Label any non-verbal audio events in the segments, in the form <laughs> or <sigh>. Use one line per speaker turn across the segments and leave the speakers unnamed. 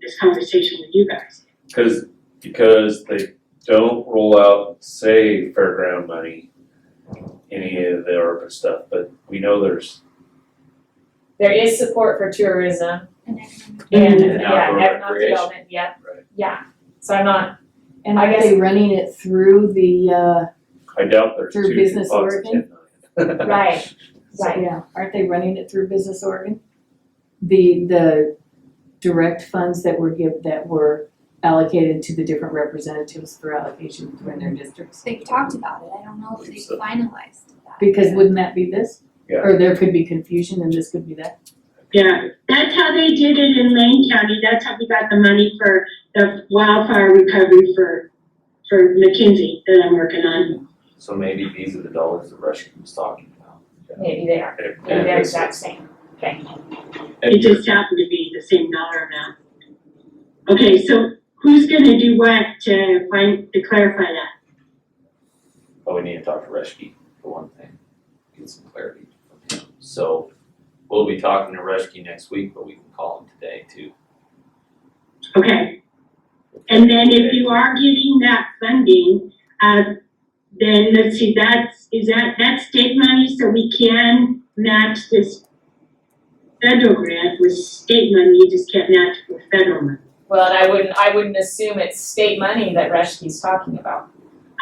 this conversation with you guys.
Cause, because they don't roll out, say, fairground money, any of the ARPA stuff, but we know there's
There is support for tourism
And
and,
And
yeah,
outdoor
economic
recreation.
development, yeah,
Right.
yeah. So I'm not,
And
I
are
guess-
they running it through the, uh,
I doubt there's
Through
two
Business
lots of
Oregon?
10 million. <laughs>
right, right,
yeah, aren't they running it through Business Oregon? The, the direct funds that were give, that were allocated to the different representatives for allocation within their districts?
They've talked about it, I don't know if
Believe
they've
so.
finalized that.
Because wouldn't that be this?
Yeah.
Or there could be confusion and this could be that?
Yeah, that's how they did it in Lane County, that's how we got the money for the wildfire recovery for, for McKinsey that I'm working on.
So maybe these are the dollars that Rushton was talking about.
maybe they are,
And-
maybe
and
they're
it's-
exact same.
It just happened to be the same dollar amount. Okay, so who's gonna do what to find, to clarify that?
But we need to talk to Reshke for one thing, get some clarity from him. So we'll be talking to Reshke next week, but we can call him today too.
Okay. And then if you are getting that funding, uh, then let's see, that's, is that, that's state money, so we can match this federal grant with state money, you just can't match it with federal money.
Well, and I wouldn't, I wouldn't assume it's state money that Rushke's talking about.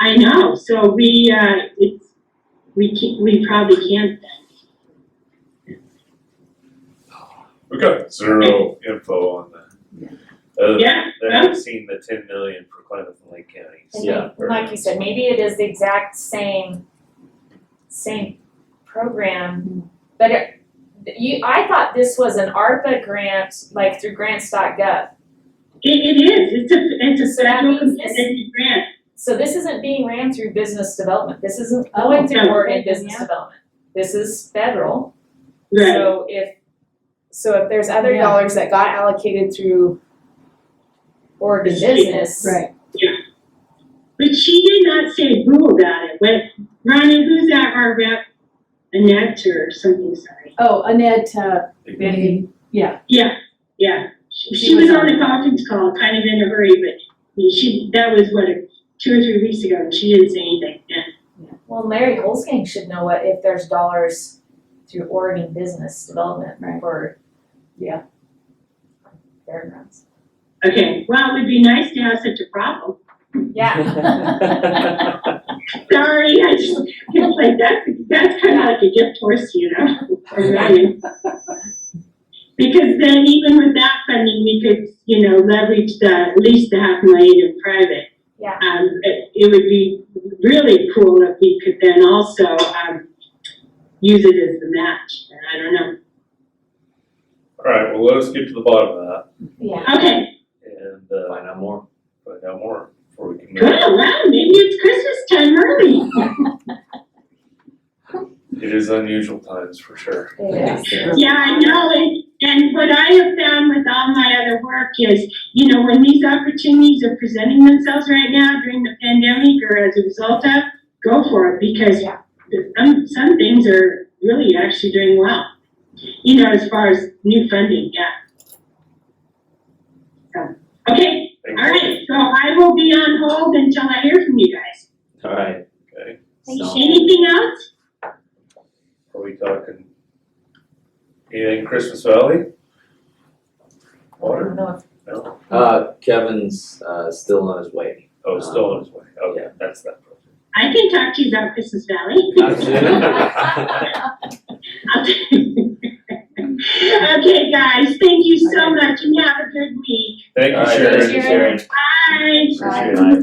I know, so we, uh, it's, we can, we probably can't then.
We got zero info on that. Other than
Yeah,
they haven't seen the ten million for Klamath and Lake County. so-
And
Yeah.
may- Like you said, maybe it is the exact same, same program, but it, you, I thought this was an ARPA grant, like through grants.gov.
it, it is, it's a, it's a
So that
federal
means this-
competitive grant.
So this isn't being ran through business development, this isn't going
Oh,
through
no.
Oregon Business
Yeah.
Development. This is federal,
Right,
so if, so if there's other
Yeah.
dollars that got allocated through Oregon
State.
Business,
Right.
but she did not say boo about it, but Ronnie, who's that, our rep? Annette or something, sorry.
Oh, Annette, uh,
Benny.
Yeah, yeah, she,
She
she was
was
on
on
the conference call, kind of in a hurry, but she, that was what, two or three weeks ago, and she didn't say anything, yeah.
Well, Larry Holzgang should know what, if there's dollars through Oregon Business Development
Right.
for.
Yeah.
Fairgrounds.
Okay, well, it would be nice to have such a problem.
Yeah,
Sorry, I just, it's like, that's, that's kind of like a gift horse, you know? or running. Because then even with that funding, we could, you know, leverage the, at least the half million in private.
Yeah.
Um, it, it would be really cool if we could then also, um, use it as the match, and I don't know.
All right, well, let us get to the bottom of that
yeah,
Okay,
and, uh,
Find out more.
find out more before we can move.
good, wow, maybe it's Christmas time early.
It is unusual times for sure.
it is.
Yeah, I know, and, and what I have found with all my other work is, you know, when these opportunities are presenting themselves right now during the pandemic or as a result of, go for it, because
Yeah.
the- some, some things are really actually doing well. You know, as far as new funding, yeah. So, okay, all right, so I will be on hold until I hear from you guys.
All right.
Okay.
Thank
So-
Anything else?
Are we talking anything Christmas Valley?
I don't
Water?
know if-
No?
Uh, Kevin's, uh, still on his way.
Oh, it's still on its way. Okay, that's that. project.
I can talk to you about Christmas Valley. <laughs> Okay, guys, thank you so much and have a good week.
Thank
All
you,
right,
Sharon.
thank you, Sharon.
Bye.
Appreciate it.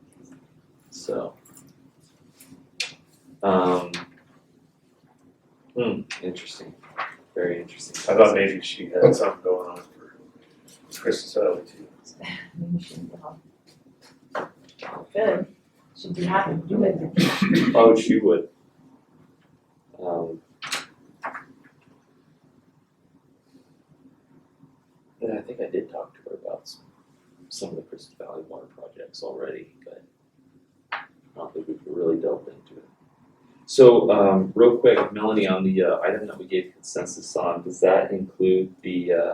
<laughs> So. Um. Hmm, interesting, very interesting.
I thought maybe she had something going on for Christmas Valley too.
um, Good, should be happy to do it.
Oh, she would. Um. Yeah, I think I did talk to her about s- some of the Crystal Valley water projects already, but I don't think we've really delved into it. So, um, real quick, Melanie, on the uh, item that we gave consensus on, does that include the uh